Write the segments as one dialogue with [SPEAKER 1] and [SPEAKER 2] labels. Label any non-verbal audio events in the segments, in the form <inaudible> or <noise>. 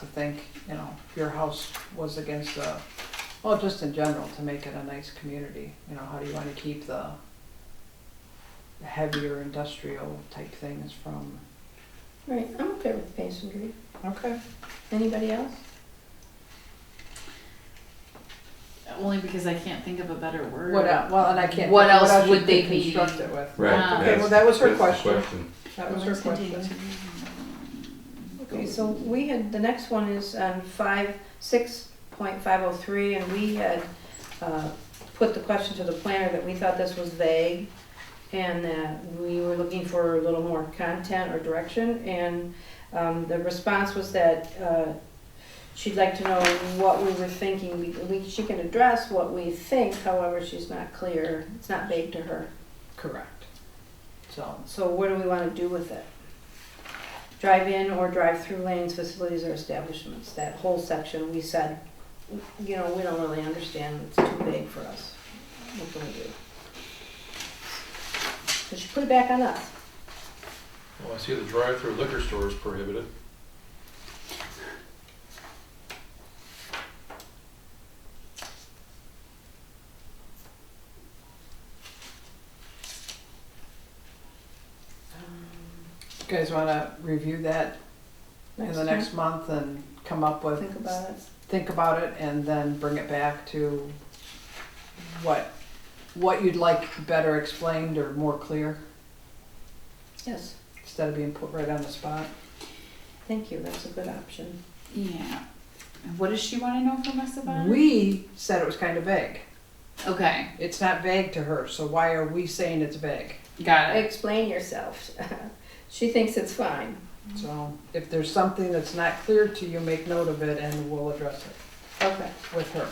[SPEAKER 1] to think, you know, your house was against the, well, just in general, to make it a nice community, you know, how do you wanna keep the heavier industrial type things from?
[SPEAKER 2] Right, I'm okay with masonry.
[SPEAKER 1] Okay.
[SPEAKER 2] Anybody else?
[SPEAKER 3] Only because I can't think of a better word.
[SPEAKER 1] What else, well, and I can't.
[SPEAKER 3] What
[SPEAKER 1] think-
[SPEAKER 3] else
[SPEAKER 1] else
[SPEAKER 3] would
[SPEAKER 1] should
[SPEAKER 3] they be-
[SPEAKER 1] Construct it with,
[SPEAKER 3] Right, Ah.
[SPEAKER 1] okay, well, that was her
[SPEAKER 4] That's the
[SPEAKER 1] question, that was her
[SPEAKER 3] Let's
[SPEAKER 1] question.
[SPEAKER 3] continue to-
[SPEAKER 2] Okay, so we had, the next one is on five, six point five oh three, and we had, uh, put the question to the planner that we thought this was vague, and that we were looking for a little more content or direction, and, um, the response was that, uh, she'd like to know what we were thinking, We- we, she can address what we think, however, she's not clear, it's not vague to her.
[SPEAKER 1] Correct. So,
[SPEAKER 2] So what do we want to do with it? Drive-in or drive-through lanes, facilities or establishments, that whole section, we said, you know, we don't really understand, it's too big for us. What can we do? So she put it back on us.
[SPEAKER 5] Well, I see the drive-through liquor store is prohibited.
[SPEAKER 1] you guys wanna review that in the next month and come up
[SPEAKER 2] time,
[SPEAKER 1] with?
[SPEAKER 2] Think about it.
[SPEAKER 1] think about it and then bring it back to what, what you'd like better explained or more clear,
[SPEAKER 2] Yes,
[SPEAKER 1] instead of being put right on the spot.
[SPEAKER 2] thank you, that's a good option.
[SPEAKER 3] Yeah. And What does she want to know from us about? it?
[SPEAKER 1] We said it was kind of vague.
[SPEAKER 3] Okay,
[SPEAKER 1] It's not vague to her, so why are we saying it's vague?
[SPEAKER 3] got it.
[SPEAKER 2] Explain yourself. <laughs> She thinks it's fine.
[SPEAKER 1] So if there's something that's not clear to you, make note of it and we'll address it
[SPEAKER 2] Okay,
[SPEAKER 1] with her.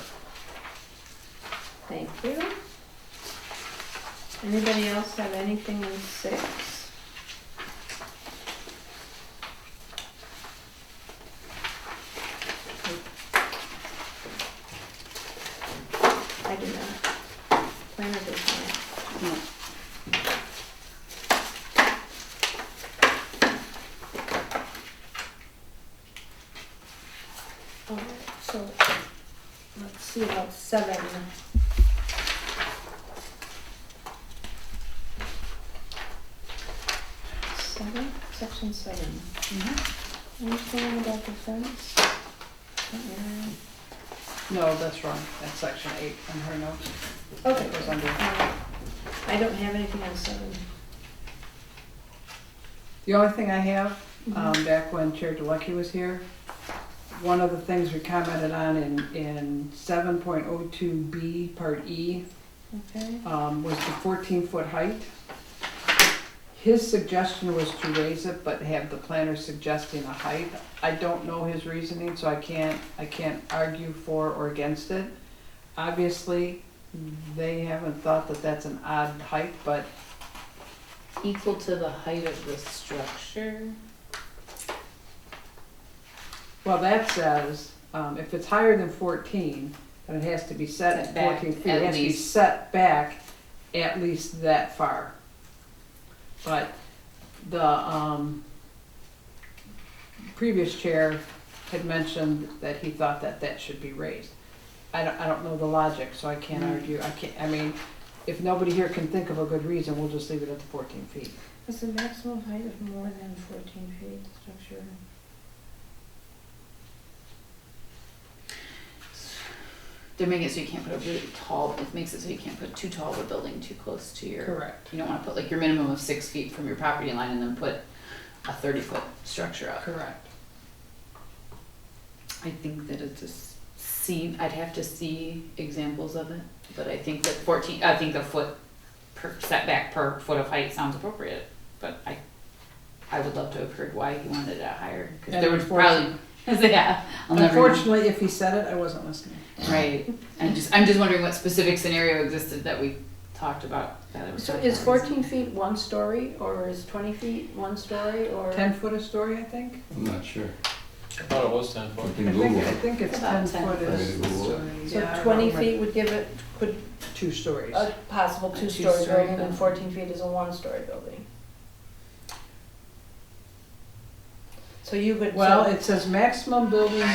[SPEAKER 2] thank you. Anybody else have anything in six? I do not. Planner does not. Alright, so, let's see about seven. Seven, section seven.
[SPEAKER 3] Mm-hmm.
[SPEAKER 2] Anything about the fence? Mm,
[SPEAKER 1] No, that's wrong, that's section eight on her notes,
[SPEAKER 2] Okay.
[SPEAKER 1] it was under,
[SPEAKER 2] Uh, I don't have anything on seven.
[SPEAKER 1] the only thing I have um, back when Chair DeLucky was here. One of the things we commented on in, in seven point oh two B, part E,
[SPEAKER 2] Okay,
[SPEAKER 1] um, was the fourteen foot height. His suggestion was to raise it, but have the planner suggesting a height. I don't know his reasoning, so I can't, I can't argue for or against it. Obviously, they haven't thought that that's an odd height, but
[SPEAKER 3] Equal to the height of the structure.
[SPEAKER 1] Well, that says, um, if it's higher than fourteen, then it has to be set
[SPEAKER 3] Set
[SPEAKER 1] at
[SPEAKER 3] back
[SPEAKER 1] fourteen feet,
[SPEAKER 3] at
[SPEAKER 1] it has to be
[SPEAKER 3] least.
[SPEAKER 1] set back at least that far. But the, um, previous chair had mentioned that he thought that that should be raised. I don't, I don't know the logic, so I can't
[SPEAKER 3] Mm.
[SPEAKER 1] argue, I can't, I mean, if nobody here can think of a good reason, we'll just leave it at the fourteen feet.
[SPEAKER 2] is the maximum height of more than fourteen feet structure?
[SPEAKER 3] They're making it so you can't put a really tall, it makes it so you can't put too tall of a building too close to your.
[SPEAKER 1] Correct.
[SPEAKER 3] You don't want to put like your minimum of six feet from your property line and then put a thirty foot structure up.
[SPEAKER 1] Correct.
[SPEAKER 3] I think that it's a s- seen, I'd have to see examples of it, but I think that fourteen, I think a foot per setback per foot of height sounds appropriate, but I, I would love to have heard why he wanted it higher, cause
[SPEAKER 1] And
[SPEAKER 3] there was probably, <laughs> yeah, I'll never know.
[SPEAKER 1] Unfortunately, if he said it, I wasn't listening.
[SPEAKER 3] Right, I'm just, I'm just wondering what specific scenario existed that we talked about, that it was.
[SPEAKER 2] So
[SPEAKER 3] like
[SPEAKER 2] is
[SPEAKER 3] that.
[SPEAKER 2] fourteen feet one story, or is twenty feet one story, or?
[SPEAKER 1] Ten foot a story, I think?
[SPEAKER 4] I'm not sure.
[SPEAKER 5] I thought it was ten foot.
[SPEAKER 4] You
[SPEAKER 1] I
[SPEAKER 4] can
[SPEAKER 1] think,
[SPEAKER 4] Google
[SPEAKER 1] I
[SPEAKER 4] it.
[SPEAKER 1] think it's ten
[SPEAKER 3] About 10
[SPEAKER 1] foot is.
[SPEAKER 4] foot. Google it.
[SPEAKER 1] yeah,
[SPEAKER 2] So
[SPEAKER 1] I
[SPEAKER 2] twenty
[SPEAKER 1] don't remember. Uh,
[SPEAKER 2] feet would give it, could,
[SPEAKER 1] Two stories.
[SPEAKER 2] a possible
[SPEAKER 3] A
[SPEAKER 2] two-story
[SPEAKER 3] two-story
[SPEAKER 2] building, and
[SPEAKER 3] building.
[SPEAKER 2] fourteen feet is a one-story building. So you would.
[SPEAKER 1] Well,
[SPEAKER 2] so-
[SPEAKER 1] it says maximum building